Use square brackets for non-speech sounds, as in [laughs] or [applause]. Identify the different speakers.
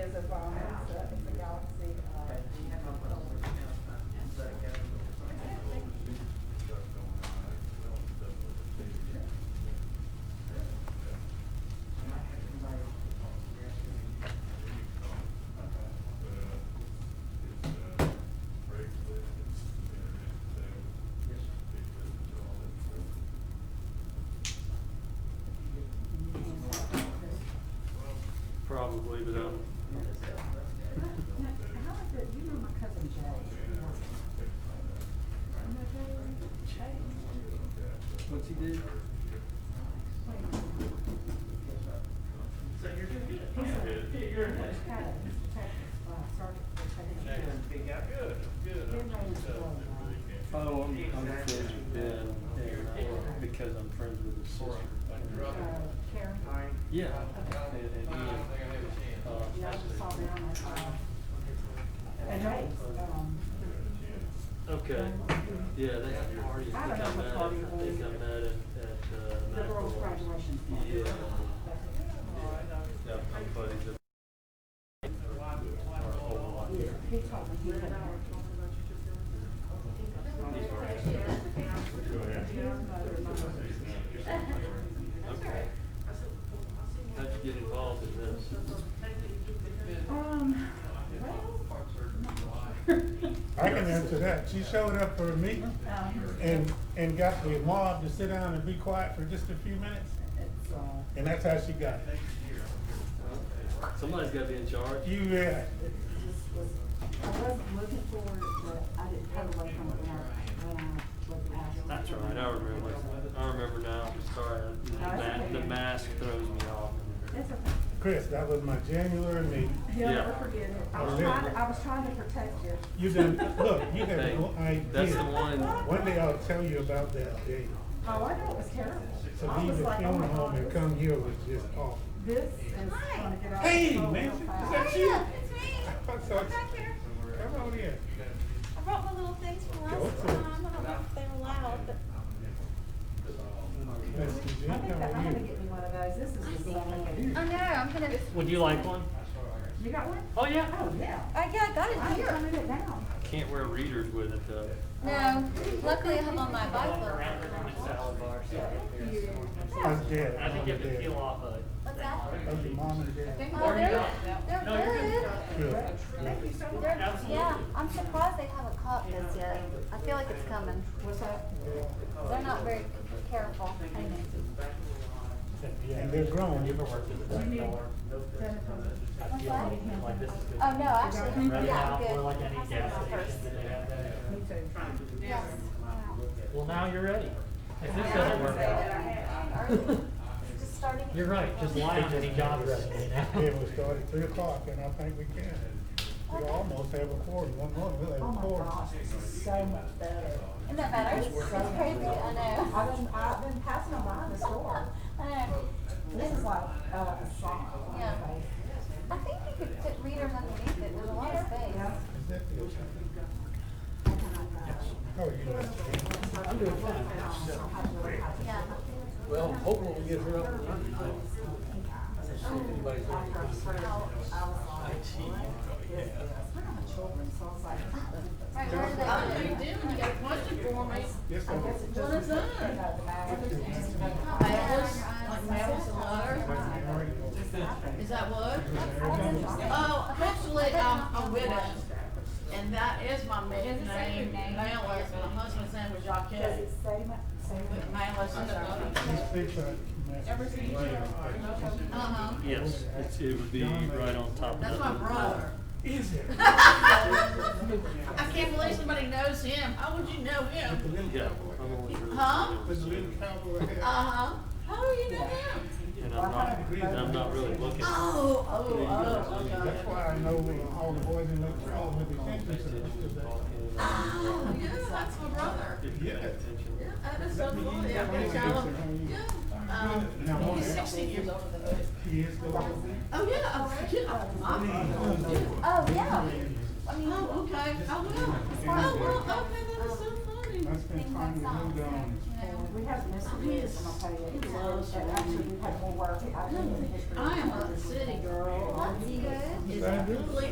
Speaker 1: uh,
Speaker 2: probably, but uh,
Speaker 1: How is it, you know my cousin Jay? You know Jay? Jay?
Speaker 3: What's he do?
Speaker 4: So you're doing good.
Speaker 1: He's a-
Speaker 4: You're in
Speaker 1: He's got a practice by circuit, but I didn't know.
Speaker 2: good, good.
Speaker 1: Their name's Lola.
Speaker 3: Oh, I'm, I'm friends with Ben, and, because I'm friends with his sister.
Speaker 1: Uh, Karen,
Speaker 3: Yeah. And, and he, uh,
Speaker 1: you know, I just saw them at, uh, at Ray's, um,
Speaker 5: Okay, yeah, they have parties,
Speaker 1: I
Speaker 5: they come
Speaker 1: don't
Speaker 5: out,
Speaker 1: know what party it
Speaker 5: at- they
Speaker 1: was.
Speaker 5: come out at, at, uh.
Speaker 1: the girls'
Speaker 5: Macklemore's.
Speaker 1: graduation. party.
Speaker 5: Yeah.
Speaker 3: yeah, my buddies that- are all on here.
Speaker 1: He told me he had.
Speaker 5: Okay. How'd you get involved in this?
Speaker 1: Um,
Speaker 6: I can answer that. She showed up for a meeting
Speaker 1: well, um,
Speaker 6: and, and got the mob to sit down and be quiet for just a few minutes,
Speaker 1: it's, uh,
Speaker 6: and that's how she got it.
Speaker 5: Somebody's gotta be in charge.
Speaker 6: You, uh, yeah,
Speaker 1: it just was, I wasn't looking for it, but I didn't cut away from it when I, when I was asked.
Speaker 5: That's right, I remember, I remember now, sorry, the ma- the mask throws me off.
Speaker 1: It's okay.
Speaker 6: Chris, that was my January meeting.
Speaker 1: He'll never
Speaker 5: Yeah.
Speaker 1: forget it. I was trying, to- I was trying to protect you.
Speaker 6: You done, look,
Speaker 5: [laughs]
Speaker 6: you have no
Speaker 5: Hey, That's the
Speaker 6: idea.
Speaker 5: one,
Speaker 6: One day I'll tell you about that day.
Speaker 1: Oh, I know, it was terrible.
Speaker 6: To
Speaker 1: I
Speaker 6: leave
Speaker 1: was
Speaker 6: the
Speaker 1: like, oh
Speaker 6: funeral
Speaker 1: my
Speaker 6: home and
Speaker 1: God,
Speaker 6: come here was just awful. [laughs]
Speaker 1: this is gonna get out. of
Speaker 6: Hey,
Speaker 1: control real
Speaker 6: Nancy, is
Speaker 1: fast.
Speaker 6: that you?
Speaker 7: Yeah, it's me.
Speaker 6: I'm
Speaker 7: I'm
Speaker 6: sorry.
Speaker 7: back here.
Speaker 6: Come on in.
Speaker 7: I brought my little things for us.
Speaker 6: Go
Speaker 7: Um,
Speaker 6: for it.
Speaker 7: I don't know if they were loud, but
Speaker 6: Mr. Jim,
Speaker 1: I think
Speaker 6: how
Speaker 1: that I'm
Speaker 6: are
Speaker 1: gonna
Speaker 6: you?
Speaker 1: get me one of those. This is the same.
Speaker 7: I know I'm gonna.
Speaker 5: would you like one?
Speaker 1: You got one?
Speaker 5: Oh, yeah,
Speaker 1: Oh, yeah.
Speaker 7: I yeah, I got
Speaker 1: I'm
Speaker 7: it here.
Speaker 1: turning it down.
Speaker 5: can't wear readers with it though.
Speaker 7: No, luckily I have on my Bible.
Speaker 6: How's dad? How's your dad?
Speaker 5: off of it.
Speaker 7: What's that?
Speaker 6: How's your mom and dad?
Speaker 7: Oh, they're they're good.
Speaker 6: Good.
Speaker 1: Thank you so much.
Speaker 7: They're, yeah, I'm surprised they haven't caught this yet. I feel like it's coming.
Speaker 1: What's that?
Speaker 7: They're not very careful. I know.
Speaker 6: And they're grown.
Speaker 7: What's that? Oh no, actually, yeah, I'm good. I'll send it out first.
Speaker 1: Me too.
Speaker 7: Yes.
Speaker 8: Well, now you're ready. If this doesn't work out,
Speaker 7: Alright. Just starting.
Speaker 8: you're right, just lie on any job resume now.
Speaker 6: Yeah, we start at three o'clock and I think we can. We almost have a quorum, one more, we'll
Speaker 1: Oh
Speaker 6: have a
Speaker 1: my
Speaker 6: quorum.
Speaker 1: gosh, this is so much better.
Speaker 7: Isn't that better? It's crazy, I know.
Speaker 1: I've been, I've been passing them by in the store.
Speaker 7: I know. [laughs]
Speaker 1: This is like, uh, a song.
Speaker 7: Yeah. I think you could put readers underneath it, there's a lot of space.
Speaker 6: Is that the ocean? How are you doing?
Speaker 1: I'm doing fine.
Speaker 7: Yeah.
Speaker 3: Well, hopefully we get her up and running tonight. See if anybody's
Speaker 1: I
Speaker 3: ready.
Speaker 1: first heard, I was like, what is this? We're not children, so I was like,
Speaker 7: Right, where
Speaker 9: You
Speaker 7: is that?
Speaker 9: do, and you got a question for me.
Speaker 6: Yes,
Speaker 1: I
Speaker 6: ma'am.
Speaker 1: guess it just,
Speaker 9: What is
Speaker 1: you know,
Speaker 9: that?
Speaker 1: the matter.
Speaker 9: Mammals, like mammals and water. Is that what? Oh, actually, I'm a widow, and that is my maiden name, Malice, and my husband's name
Speaker 1: Does
Speaker 9: was Jacques.
Speaker 1: it say my, say my?
Speaker 9: But Malice is
Speaker 6: Let's fix that mess.
Speaker 9: Uh-huh,
Speaker 5: Yes, it's, it would be right on top of that.
Speaker 9: that's my
Speaker 5: little-
Speaker 9: brother.
Speaker 6: Is it?
Speaker 9: I can't believe somebody knows him, how would you know him?
Speaker 5: Yeah. I'm only really-
Speaker 9: Huh?
Speaker 6: The little cowboy hat.
Speaker 9: Uh-huh, how do you know him?
Speaker 5: And I'm not, and I'm not really looking.
Speaker 9: Oh, oh, oh,
Speaker 6: That's
Speaker 9: okay.
Speaker 6: why I know all the boys in Lake Charles with the attention to
Speaker 9: Oh, yeah, that's my brother.
Speaker 6: this. Yes.
Speaker 9: Yeah, that is so cool, yeah,
Speaker 6: Let me
Speaker 9: yeah,
Speaker 6: fix it,
Speaker 9: Oh,
Speaker 6: honey.
Speaker 9: yeah. Um, he's sixteen years older than me.
Speaker 6: He is the one.
Speaker 9: Oh, yeah, oh, yeah, I'm, yeah.
Speaker 7: Oh, yeah. I mean,
Speaker 9: Oh, okay, I will. Oh, well, okay, that is so funny.
Speaker 6: I spent time with him down.
Speaker 1: We have Mr. Lewis on my page. And actually, we have more work. I think, in history.
Speaker 9: I am a city girl.
Speaker 7: that's good.
Speaker 9: It's completely